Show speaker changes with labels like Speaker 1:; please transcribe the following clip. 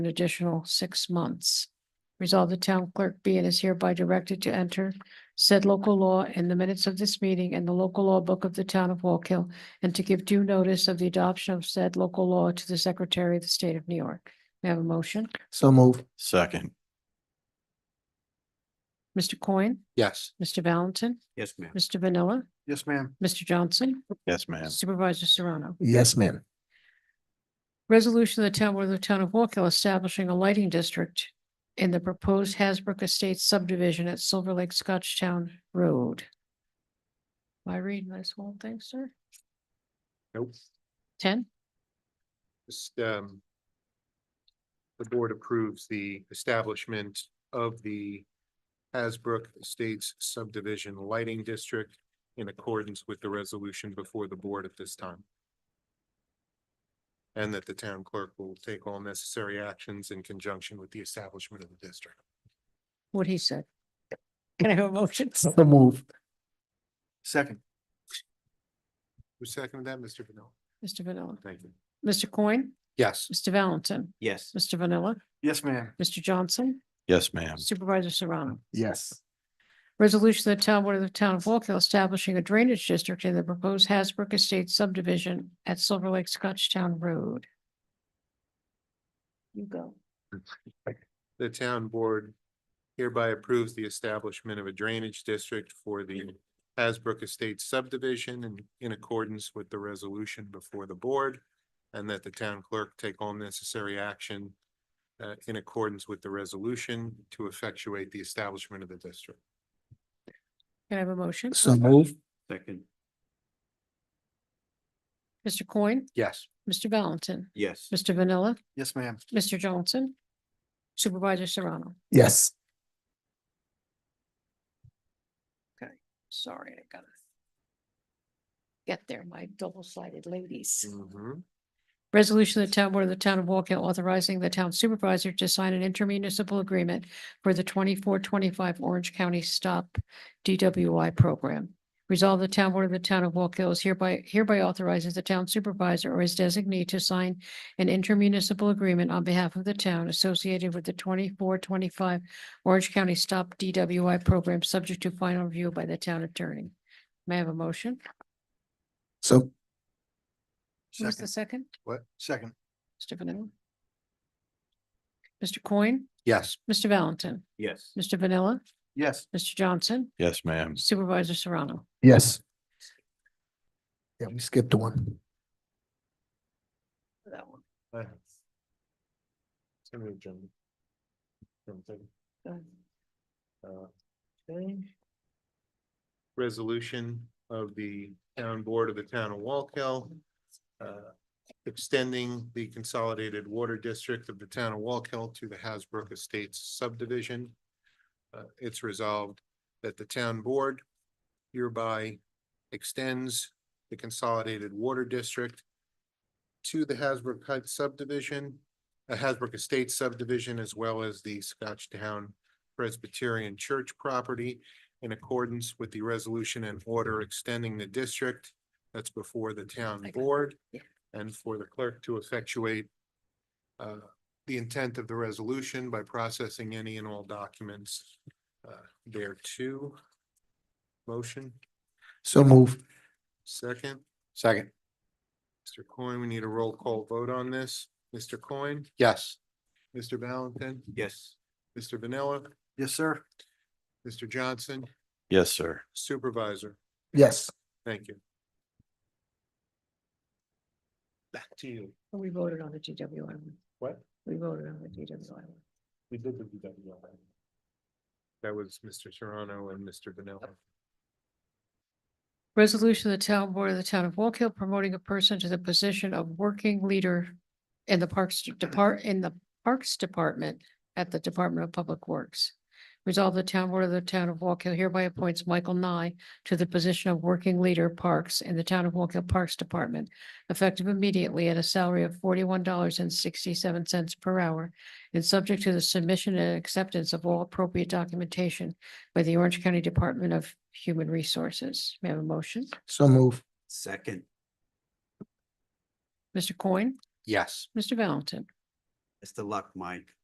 Speaker 1: an additional six months. Resolve the town clerk be and is hereby directed to enter said local law in the minutes of this meeting and the local law book of the town of Walk Hill and to give due notice of the adoption of said local law to the Secretary of the State of New York. May I have a motion?
Speaker 2: So move.
Speaker 3: Second,
Speaker 1: Mr. Coyne,
Speaker 2: Yes.
Speaker 1: Mr. Valentin,
Speaker 4: Yes, ma'am.
Speaker 1: Mr. Vanilla,
Speaker 4: Yes, ma'am.
Speaker 1: Mr. Johnson,
Speaker 3: yes, ma'am.
Speaker 1: Supervisor Serrano.
Speaker 2: Yes, ma'am.
Speaker 1: Resolution of the town board of the town of Walk Hill establishing a lighting district in the proposed Hasbrook Estates subdivision at Silver Lake Scotchtown Road. Am I reading this whole thing, sir?
Speaker 4: Nope.
Speaker 1: Ten?
Speaker 5: Just, um, the board approves the establishment of the Hasbrook Estates subdivision lighting district in accordance with the resolution before the board at this time. And that the town clerk will take all necessary actions in conjunction with the establishment of the district.
Speaker 1: What he said. Can I have a motion?
Speaker 2: So move.
Speaker 4: Second.
Speaker 5: Who seconded that, Mr. Vanilla?
Speaker 1: Mr. Vanilla,
Speaker 5: Thank you.
Speaker 1: Mr. Coyne,
Speaker 5: Yes.
Speaker 1: Mr. Valentin,
Speaker 4: Yes.
Speaker 1: Mr. Vanilla,
Speaker 4: Yes, ma'am.
Speaker 1: Mr. Johnson,
Speaker 3: Yes, ma'am.
Speaker 1: Supervisor Serrano.
Speaker 2: Yes.
Speaker 1: Resolution of the town board of the town of Walk Hill establishing a drainage district in the proposed Hasbrook Estates subdivision at Silver Lake Scotchtown Road. You go.
Speaker 5: The town board hereby approves the establishment of a drainage district for the Hasbrook Estates subdivision and in accordance with the resolution before the board. And that the town clerk take all necessary action uh, in accordance with the resolution to effectuate the establishment of the district.
Speaker 1: Can I have a motion?
Speaker 2: So move.
Speaker 4: Second.
Speaker 1: Mr. Coyne,
Speaker 5: Yes.
Speaker 1: Mr. Valentin,
Speaker 4: Yes.
Speaker 1: Mr. Vanilla,
Speaker 4: Yes, ma'am.
Speaker 1: Mr. Johnson, Supervisor Serrano.
Speaker 2: Yes.
Speaker 1: Sorry, I gotta get there, my double-sided ladies.
Speaker 5: Mhm.
Speaker 1: Resolution of the town board of the town of Walk Hill authorizing the town supervisor to sign an intermunicipal agreement for the twenty-four, twenty-five Orange County Stop DWI program. Resolve the town board of the town of Walk Hill is hereby hereby authorizes the town supervisor or his designee to sign an intermunicipal agreement on behalf of the town associated with the twenty-four, twenty-five Orange County Stop DWI program, subject to final review by the town attorney. May I have a motion?
Speaker 2: So,
Speaker 1: Who was the second?
Speaker 5: What?
Speaker 4: Second.
Speaker 1: Mr. Vanilla? Mr. Coyne,
Speaker 5: Yes.
Speaker 1: Mr. Valentin,
Speaker 4: Yes.
Speaker 1: Mr. Vanilla,
Speaker 4: Yes.
Speaker 1: Mr. Johnson,
Speaker 3: Yes, ma'am.
Speaker 1: Supervisor Serrano.
Speaker 2: yes. Yeah, we skipped one.
Speaker 1: That one.
Speaker 5: Uh, Senator Jones. Something. Uh, okay. Resolution of the town board of the town of Walkell. uh, Extending the consolidated water district of the town of Walkell to the Hasbrook Estates subdivision. Uh, it's resolved that the town board hereby extends the consolidated water district to the Hasbrook Heights subdivision, uh, Hasbrook Estates subdivision, as well as the Scotchtown Presbyterian Church property in accordance with the resolution and order extending the district that's before the
Speaker 1: I
Speaker 5: town
Speaker 1: got it.
Speaker 5: board
Speaker 1: Yeah.
Speaker 5: and for the clerk to effectuate uh, the intent of the resolution by processing any and all documents uh, thereto. Motion,
Speaker 2: So move.
Speaker 5: second.
Speaker 2: Second.
Speaker 5: Mr. Coyne, we need a roll call vote on this. Mr. Coyne,
Speaker 2: Yes.
Speaker 5: Mr. Valentin,
Speaker 4: Yes.
Speaker 5: Mr. Vanilla,
Speaker 4: Yes, sir.
Speaker 5: Mr. Johnson,
Speaker 3: Yes, sir.
Speaker 5: Supervisor.
Speaker 2: Yes.
Speaker 5: Thank you. Back to you.
Speaker 1: We voted on the DWI one.
Speaker 5: What?
Speaker 1: We voted on the DWI one.
Speaker 5: We did the DWI. That was Mr. Serrano and Mr. Vanilla.
Speaker 1: Resolution of the town board of the town of Walk Hill promoting a person to the position of working leader in the Parks Depart, in the Parks Department at the Department of Public Works. Resolve the town board of the town of Walk Hill hereby appoints Michael Nye to the position of working leader Parks in the town of Walk Hill Parks Department, effective immediately at a salary of forty-one dollars and sixty-seven cents per hour and subject to the submission and acceptance of all appropriate documentation by the Orange County Department of Human Resources. May I have a motion?
Speaker 2: So move.
Speaker 4: Second.
Speaker 1: Mr. Coyne,
Speaker 5: Yes.
Speaker 1: Mr. Valentin,
Speaker 3: Best of luck, Mike.